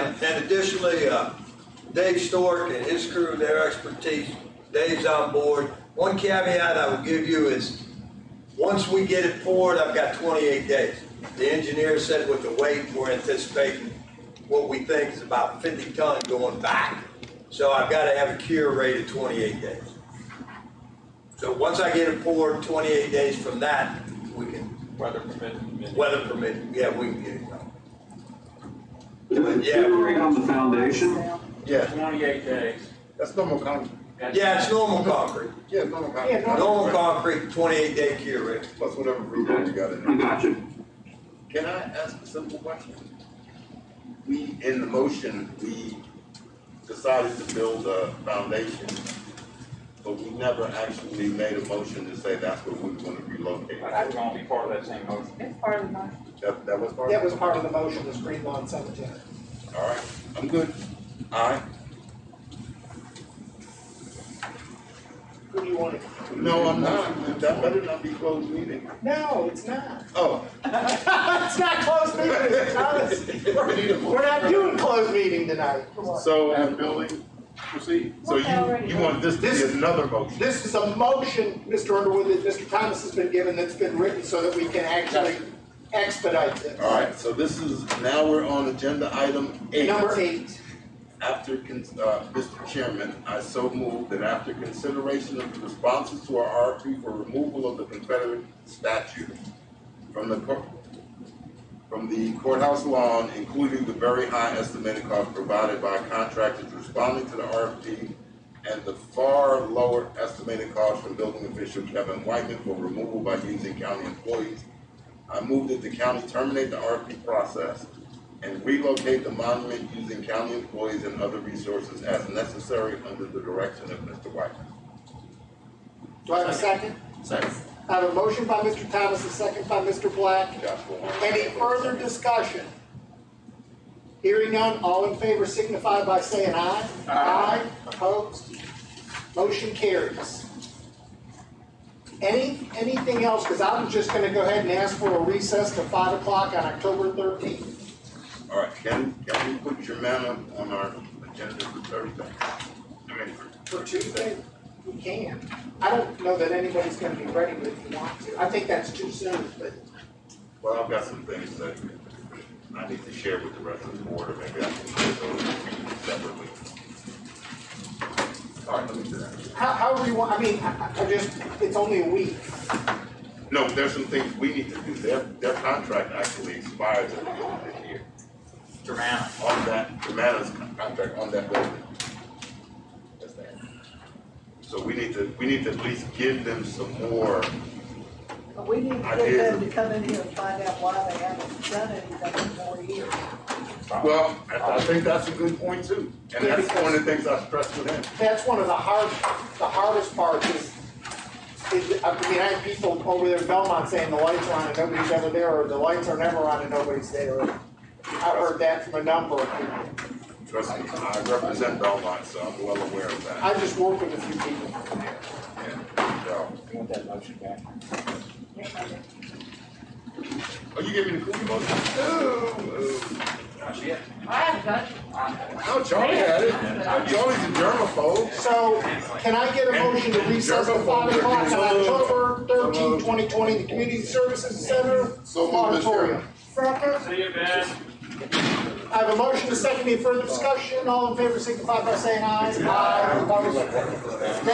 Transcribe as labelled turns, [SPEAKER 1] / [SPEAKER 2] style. [SPEAKER 1] And, and additionally, uh, Dave Stork and his crew, their expertise, Dave's on board. One caveat I would give you is, once we get it poured, I've got twenty-eight days. The engineer said with the weight, we're anticipating what we think is about fifty ton going back. So I've gotta have a cure rate of twenty-eight days. So once I get it poured, twenty-eight days from that, we can,
[SPEAKER 2] Weather permitting.
[SPEAKER 1] weather permitting, yeah, we can get it done.
[SPEAKER 3] Is it
[SPEAKER 1] Yeah.
[SPEAKER 3] curing on the foundation?
[SPEAKER 4] Yeah,
[SPEAKER 2] Twenty-eight days.
[SPEAKER 4] that's normal concrete.
[SPEAKER 2] That's-
[SPEAKER 1] Yeah, it's normal concrete.
[SPEAKER 4] Yeah, it's normal
[SPEAKER 5] Yeah,
[SPEAKER 4] concrete.
[SPEAKER 5] normal.
[SPEAKER 1] Normal concrete, twenty-eight day cure rate.
[SPEAKER 4] Plus whatever roof you got in
[SPEAKER 3] I
[SPEAKER 4] there.
[SPEAKER 3] got you.
[SPEAKER 6] Can I ask a simple question? We, in the motion, we decided to build a foundation, but we never actually made a motion to say that's where we want to relocate.
[SPEAKER 2] I think it's gonna be part of that same motion.
[SPEAKER 5] It's part of the,
[SPEAKER 6] That, that was part
[SPEAKER 5] that
[SPEAKER 6] of
[SPEAKER 5] was part of the motion, was Greenlawn Cemetery.
[SPEAKER 6] it? All right, I'm good. All right.
[SPEAKER 5] Who do you want
[SPEAKER 6] No, I'm not. That better not be closed meeting.
[SPEAKER 5] to? No, it's not.
[SPEAKER 6] Oh.
[SPEAKER 5] It's not closed meeting, Thomas. We're not doing closed meeting tonight. Come on.
[SPEAKER 6] So,
[SPEAKER 4] Have building, proceed.
[SPEAKER 6] so you, you want this to be another motion?
[SPEAKER 5] This is a motion, Mr. Underwood, that Mr. Thomas has been given, that's been written so that we can actually expedite this.
[SPEAKER 6] All right, so this is, now we're on agenda item eight.
[SPEAKER 5] Number eight.
[SPEAKER 6] After, con- uh, Mr. Chairman, I so move that after consideration of the responses to our RFP for removal of the Confederate statue from the cour- from the courthouse lawn, including the very high estimated cost provided by contractors responding to the RFP and the far lower estimated cost from building official Kevin Whiteman for removal by using county employees. I move that the county terminate the RFP process and relocate the monument using county employees and other resources as necessary under the direction of Mr. Whiteman.
[SPEAKER 5] Do I have a second?
[SPEAKER 6] Second.
[SPEAKER 5] I have a motion by Mr. Thomas, a second by Mr. Black.
[SPEAKER 6] Joshua Long.
[SPEAKER 5] Any further discussion? Hearing none, all in favor signify by saying aye. Aye. Opposed? Motion carries. Any, anything else? Because I was just gonna go ahead and ask for a recess to five o'clock on October thirteenth.
[SPEAKER 6] All right, can, can we put your man up on our agenda for Thursday? I mean, for.
[SPEAKER 5] For Tuesday, we can. I don't know that anybody's gonna be ready, but if you want to, I think that's too soon, but
[SPEAKER 6] Well, I've got some things that I need to share with the rest of the board, or maybe I can share those separately. All right, let me do that.
[SPEAKER 5] how, however you want, I mean, I, I I just, it's only a week.
[SPEAKER 6] No, there's some things we need to do. Their, their contract actually expires at the end of this year.
[SPEAKER 2] Durant.
[SPEAKER 6] on that, the matters contract on that building. That's that. So we need to, we need to at least give them some more,
[SPEAKER 7] But We need to get them to come in here and find out why they haven't done anything in four years.
[SPEAKER 6] well, I, I think that's a good point too. And that's one of the things I stressed with him.
[SPEAKER 5] that's one of the hard, the hardest parts is, is, I mean, I have people over there in Belmont saying the lights are on and nobody's ever there, or the lights are never on and nobody's there. I've heard that from a number of people.
[SPEAKER 6] Trust me, I represent Belmont, so I'm well aware of that.
[SPEAKER 5] I just work with a few people.
[SPEAKER 6] Yeah, so.
[SPEAKER 2] You want that motion back?
[SPEAKER 6] Oh, you gave me the cookie motion? Oh,
[SPEAKER 2] That's it.
[SPEAKER 8] I haven't done it.
[SPEAKER 6] oh. No, Charlie had it. Charlie's a germaphobe.
[SPEAKER 5] So, can I get a motion to recess to five o'clock on October thirteenth, twenty twenty, the Community Services Center
[SPEAKER 6] So moved, Mr.
[SPEAKER 5] auditorium?
[SPEAKER 7] Second,
[SPEAKER 2] See you, Ben.
[SPEAKER 5] I have a motion to second, any further discussion, all in favor, signify by saying aye. Aye. Opposed?